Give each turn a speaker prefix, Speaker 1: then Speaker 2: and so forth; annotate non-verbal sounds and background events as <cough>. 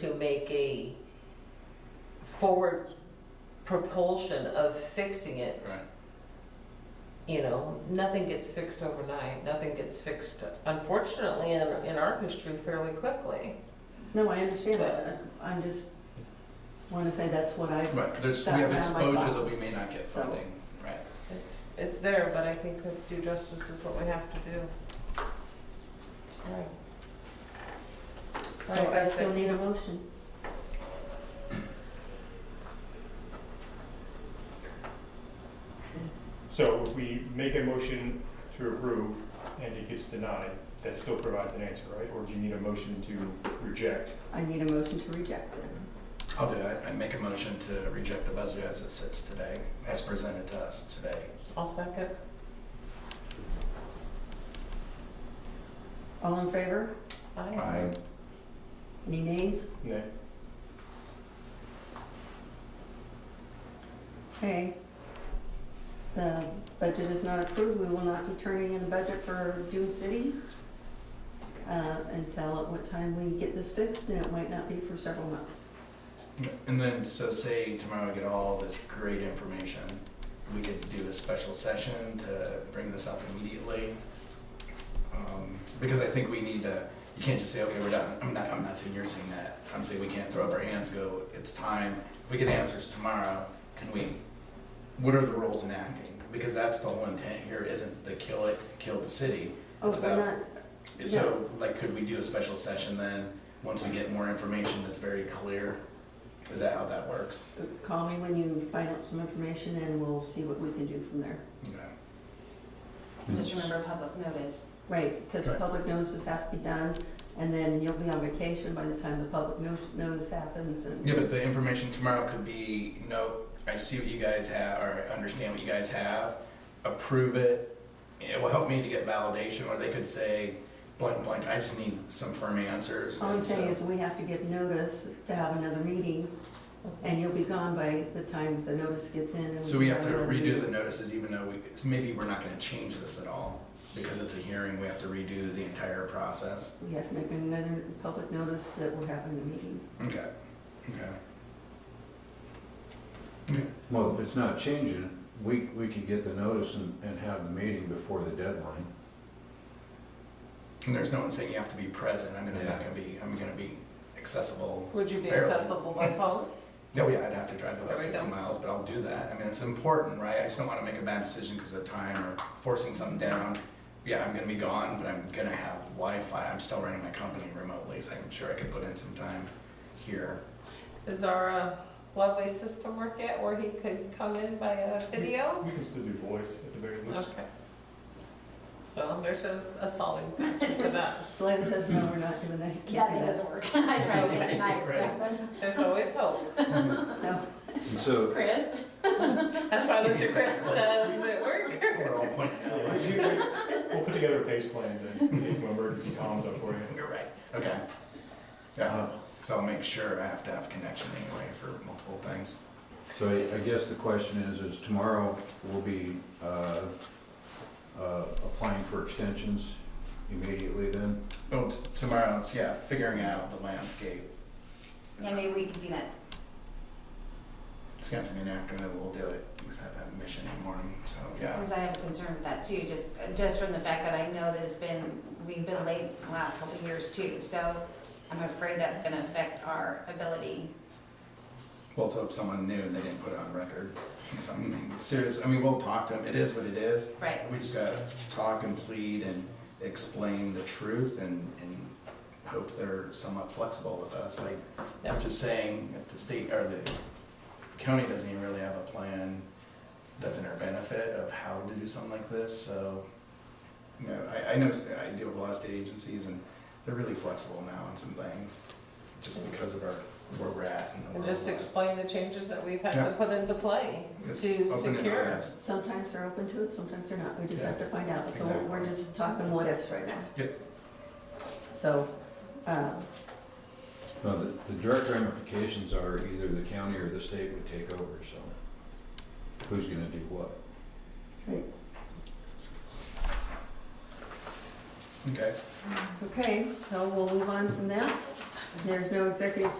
Speaker 1: to make a forward propulsion of fixing it.
Speaker 2: Right.
Speaker 1: You know, nothing gets fixed overnight, nothing gets fixed, unfortunately, in, in our history fairly quickly.
Speaker 3: No, I understand that. I'm just, want to say that's what I,
Speaker 2: Right, there's, we
Speaker 3: That
Speaker 2: have
Speaker 3: round, like
Speaker 2: exposure that
Speaker 3: boxes.
Speaker 2: we may not get
Speaker 3: So-
Speaker 2: funding, right?
Speaker 1: It's, it's there, but I think with due justice is what we have to do. Sorry.
Speaker 3: so
Speaker 1: Sorry,
Speaker 3: I still need a motion.
Speaker 4: So if we make a motion to approve and it gets denied, that still provides an answer, right? Or do you need a motion to reject?
Speaker 3: I need a motion to reject it.
Speaker 2: I'll do it. I make a motion to reject the budget as it sits today, as presented to us today.
Speaker 1: I'll second.
Speaker 3: All in favor?
Speaker 1: Aye.
Speaker 3: Any nays?
Speaker 4: Nay.
Speaker 3: Okay. The budget is not approved. We will not be turning in the budget for Dune City uh, until at what time we get this fixed, and it might not be for several months.
Speaker 2: And then, so say tomorrow we get all this great information, we could do a special session to bring this up immediately. Um, Because I think we need to, you can't just say, okay, we're done. I'm not, I'm not saying you're saying that. I'm saying we can't throw up our hands, and go, it's time. If we get answers tomorrow, can we, what are the rules in acting? Because that's the whole intent here, isn't the kill it, kill the city.
Speaker 3: Oh,
Speaker 2: It's
Speaker 3: we're
Speaker 2: about-
Speaker 3: not,
Speaker 2: So, like, could we do a special session then, once we get more information that's very clear? Is that how that works?
Speaker 3: call me when you find out some information, and we'll see what we can do from there.
Speaker 2: Okay.
Speaker 5: Just remember public notice.
Speaker 3: Right, because the
Speaker 2: Right.
Speaker 3: public notices have to be done, and then you'll be on vacation by the time the public no- notice happens and.
Speaker 2: Yeah, but the information tomorrow could be, no, I see what you guys have, or I understand what you guys have, approve it. It will help me to get validation, or they could say, blank, blank, I just need some firm answers.
Speaker 3: All I'm
Speaker 2: and so-
Speaker 3: saying is we have to give notice to have another meeting,
Speaker 1: Mm-hmm.
Speaker 3: and you'll be gone by the time the notice gets in. and
Speaker 2: So we have
Speaker 3: can
Speaker 2: to
Speaker 3: have another
Speaker 2: redo the
Speaker 3: meeting.
Speaker 2: notices even though we, it's- maybe we're not gonna change this at all, because it's a hearing, we have to redo the entire process.
Speaker 3: We have to make another public notice that we're having the meeting.
Speaker 2: Okay, okay.
Speaker 6: Well, if it's not changing, we, we can get the notice and, and have the meeting before the deadline.
Speaker 2: And there's no one saying you have to be present, I'm gonna, not
Speaker 6: Yeah.
Speaker 2: gonna be, I'm gonna be accessible.
Speaker 1: Would you be
Speaker 2: Barely.
Speaker 1: accessible by phone?
Speaker 2: No, yeah, I'd have to drive
Speaker 1: There
Speaker 2: about
Speaker 1: we
Speaker 2: fifty
Speaker 1: go.
Speaker 2: miles, but I'll do that, I mean, it's important, right? I just don't wanna make a bad decision because of time or forcing something down. Yeah, I'm gonna be gone, but I'm gonna have Wi-Fi, I'm still running my company remotely, so I'm sure I could put in some time here.
Speaker 1: Is our uh, lovely system work yet where he could come in by a video?
Speaker 4: We can still do voice at the very least.
Speaker 1: Okay. So there's a, a solving for that.
Speaker 3: Glenn says, no, we're not doing that, you
Speaker 5: Yeah,
Speaker 3: can't
Speaker 5: that
Speaker 3: do
Speaker 5: doesn't work. <laughs> I tried it tonight, so.
Speaker 2: Right.
Speaker 1: There's always hope.
Speaker 3: that. So,
Speaker 6: And so,
Speaker 5: Chris?
Speaker 1: That's why I looked at Chris, uh, does it work?
Speaker 2: We're all pointing out.
Speaker 4: Yeah, you- you- We'll put together a pace plan to, in case one emergency comes up for you.
Speaker 2: <laughs> You're right. Okay. Yeah, so I'll make sure I have to have connection anyway for multiple things.
Speaker 6: so I- I guess the question is, is tomorrow we'll be, uh, uh, applying for extensions immediately then?
Speaker 2: Oh, t- tomorrow, it's- yeah, figuring out the landscape.
Speaker 5: Yeah, maybe we can do that.
Speaker 2: It's gonna have to be an afternoon, we'll do it, because I have that mission in the morning, so, yeah.
Speaker 5: Since I have a concern with that too, just, just from the fact that I know that it's been, we've been late the last couple of years too. So I'm afraid that's gonna affect our ability.
Speaker 2: Well, to someone new, and they didn't put it on record. So, I mean, serious, I mean, we'll talk to them, it is what it is.
Speaker 5: Right.
Speaker 2: We just gotta talk and plead and explain the truth and, and hope they're somewhat flexible with us, like,
Speaker 1: Yeah.
Speaker 2: I'm just saying, if the state, or the county doesn't even really have a plan that's in our benefit of how to do something like this, so, you know, I, I know, I deal with a lot of state agencies, and they're really flexible now on some things, just because of our, where we're at and the
Speaker 1: And
Speaker 2: world.
Speaker 1: just explain the changes that we've had to put into play
Speaker 2: It's
Speaker 1: to
Speaker 2: open and
Speaker 1: secure.
Speaker 2: honest.
Speaker 3: sometimes they're open to it, sometimes they're not, we just have to find out. So
Speaker 2: Exactly.
Speaker 3: we're just talking what ifs right now.
Speaker 2: Yep.
Speaker 3: So, um,
Speaker 6: No, the, the direct ramifications are either the county or the state would take over, so who's gonna do what?
Speaker 2: Okay.
Speaker 3: Okay, so we'll move on from that. There's no executive